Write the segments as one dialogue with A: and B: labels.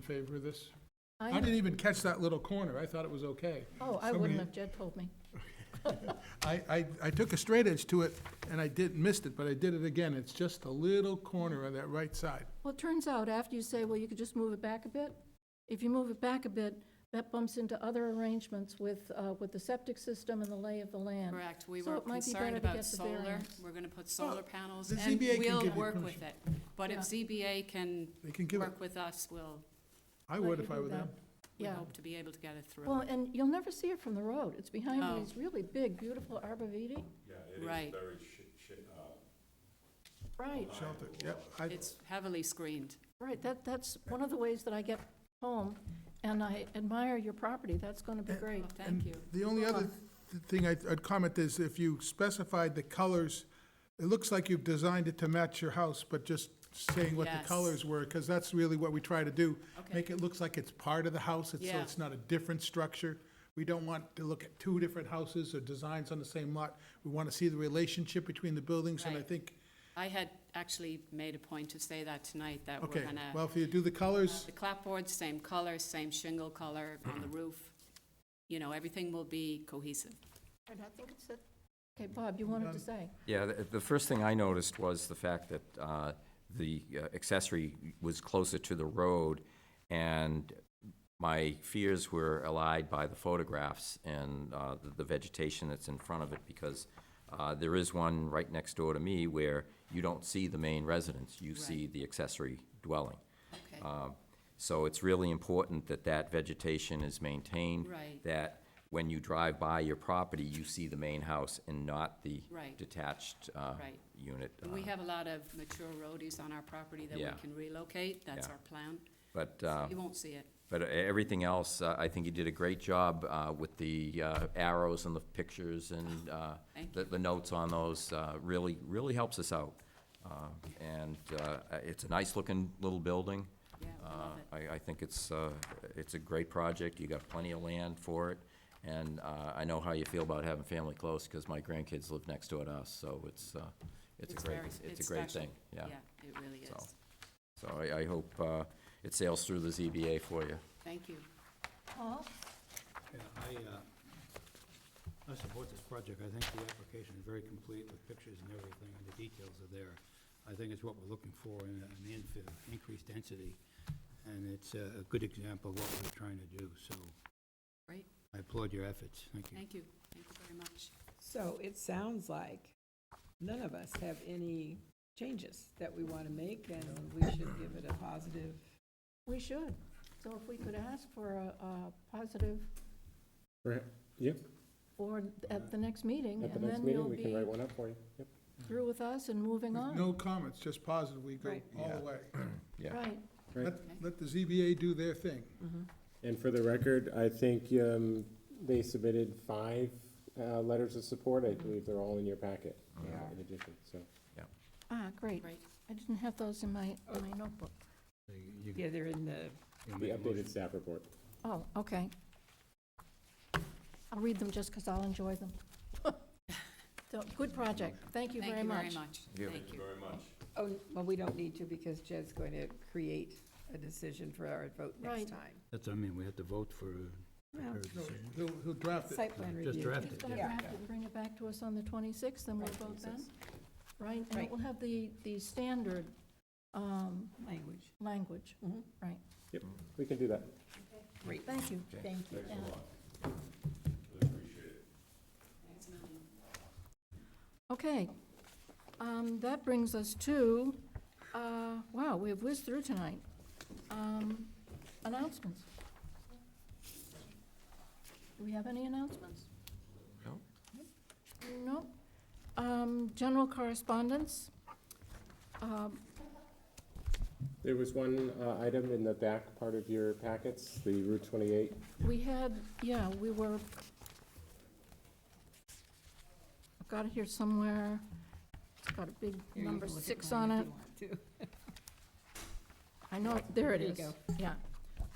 A: favor of this? I
B: I,
A: didn't even catch that little corner, I thought it was okay.
B: oh, I
A: somebody-
B: wouldn't have, Jed told me.
A: I, I, I took a straight edge to it, and I did, missed it, but I did it again, it's just a little corner on that right side.
B: Well, it turns out, after you say, well, you could just move it back a bit, if you move it back a bit, that bumps into other arrangements with, uh, with the septic system and the lay of the land.
C: Correct, we
B: So
C: were
B: it might be
C: concerned
B: better to
C: about
B: get the
C: solar,
B: variance.
C: we're gonna put solar panels,
A: the
C: and
A: ZBA can
C: we'll
A: give you
C: work with
A: permission.
C: it. But if
B: Yeah.
C: ZBA can
A: They can give it,
C: work with us, we'll,
A: I would
B: you
A: if I
B: do
A: were them.
C: we
B: Yeah.
C: hope to be able to get it
B: Well,
C: through.
B: and you'll never see it from the road, it's behind
C: No.
B: these really big, beautiful arborvitae.
D: Yeah, it is
C: Right.
D: very shi shi- uh,
B: Right,
A: Shelter, yep, I,
C: It's heavily screened.
B: right, that, that's one of the ways that I get home, and I admire your property, that's gonna be great.
C: Well, thank you.
A: The only other th- thing I'd I'd comment is if you specified the colors, it looks like you've designed it to match your house, but just saying what the
C: Yes.
A: colors were, because that's really what we try to do.
C: Okay.
A: Make it looks like it's part of the house, it's- so
C: Yeah.
A: it's not a different structure. We don't want to look at two different houses or designs on the same lot. We want to see the relationship between the buildings, and I
C: Right.
A: think,
C: I had actually made a point to say that tonight, that we're
A: okay,
C: gonna,
A: well, if you do the colors,
C: the clapboard, same color, same shingle color on
D: Mm-hmm.
C: the roof. You know, everything will be cohesive.
B: And I think it's a, okay, Bob, you wanted to say?
E: Yeah, the, the first thing I noticed was the fact that, uh, the uh, accessory was closer to the road, and my fears were allayed by the photographs and, uh, the- the vegetation that's in front of it, because, uh, there is one right next door to me where you don't see the main residence, you see the accessory dwelling.
C: Okay.
D: Uh,
E: Um, So it's really important that that vegetation is maintained.
C: Right.
E: That when you drive by your property, you see the main house and not the
C: Right.
E: detached uh,
C: Right.
E: unit.
C: And We
E: uh,
C: have a lot of mature roadies on our property that we
E: Yeah.
C: can relocate, that's
E: Yeah.
C: our plan.
E: But,
C: So
E: uh,
C: You won't see it.
E: but e- everything else, uh, I think you did a great job uh, with the uh, arrows and the pictures and uh,
C: Oh, Thank
E: the the notes on those. uh, Really, really helps us out. Uh, And uh, it's a nice-looking little building.
C: Yeah, I love
E: Uh, I, I think it's, uh, it's a great project, you got plenty of land for it, and, uh, I know how you feel about having family close, because my grandkids live next door to us, so it's, uh, it's a great,
C: very-
E: it's a great
C: special.
E: thing, yeah.
C: Yeah, it really
E: So.
C: is.
E: So I, I hope, uh, it sails through the ZBA for you.
C: Thank you.
B: Paul?
F: Yeah, I, uh, I support this project. I think the application is very complete with pictures and everything, and the details are there. I think it's what we're looking for in a- an infill, increased density, and it's a a good example of what we're trying to do, so.
C: Great.
F: I applaud your efforts. Thank you.
C: Thank you. Thank you very much.
G: So it sounds like none of us have any changes that we want to make, and we should give it a positive.
B: We should. So if we could ask for a, a positive.
H: Right, yep.
B: Or at the next meeting,
H: At the
B: and
H: next
B: then you'll
H: meeting, we can
B: be
H: write one up for you. Yep.
B: through with us and moving on.
A: no comments, just positive, we go
G: Right.
A: all
E: Yeah.
A: the way.
E: Yeah.
B: Right.
A: Let, let the ZBA do their thing.
H: And for the record, I think um, they submitted five uh, letters of support. I believe they're all in your packet uh,
G: Yeah.
H: in addition, so.
B: Ah, great.
C: Great.
B: I didn't have those in my, in my notebook.
F: So you- you-
G: Yeah, they're in the,
F: you
H: The
F: make a motion.
H: updated staff report.
B: Oh, okay. I'll read them just because I'll enjoy them. So, good project. Thank you
C: Thank
B: very
C: you very
B: much.
C: much.
E: Yeah.
C: Thank you.
D: very much.
G: oh, well, we don't need to because Jed's going to create a decision for our vote
B: Right.
G: next time.
F: That's, what I mean, we have to vote for uh,
G: Well,
F: her
A: No,
F: decision.
A: He'll, he'll draft it.
G: Site plan
F: Just
G: review.
F: draft
B: He's
F: it,
B: gonna
F: yeah.
B: draft it and bring it back to us on the 26th, and we'll
G: Right,
B: vote then,
G: 26th.
B: right? And it
G: Right.
B: will have the, the standard um,
G: Language.
B: language.
G: Mhm.
B: Right.
H: Yep, we can do that.
G: Great.
B: Mm-hmm. Thank you.
G: Thank you.
B: Yeah.
C: Thanks, Melanie.
B: Okay, um, that brings us to, uh, wow, we have whizzed through tonight. Um, announcements. Do we have any announcements?
E: No.
B: No. Um, general correspondence. Um,
H: There was one uh, item in the back part of your packets, the Route 28.
B: we had, yeah, we were, I've got it here somewhere. It's got a big
G: Here, you
B: number
G: can look at
B: six
G: mine
B: on it.
G: if you want to.
B: I know, there it
G: There you
B: is.
G: go.
B: Yeah,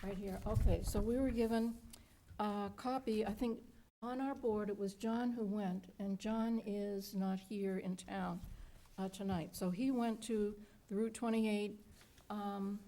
B: right here. Okay, so we were given a copy, I think, on our board, it was John who went, and John is not here in town uh, tonight. So he went to the Route 28 um,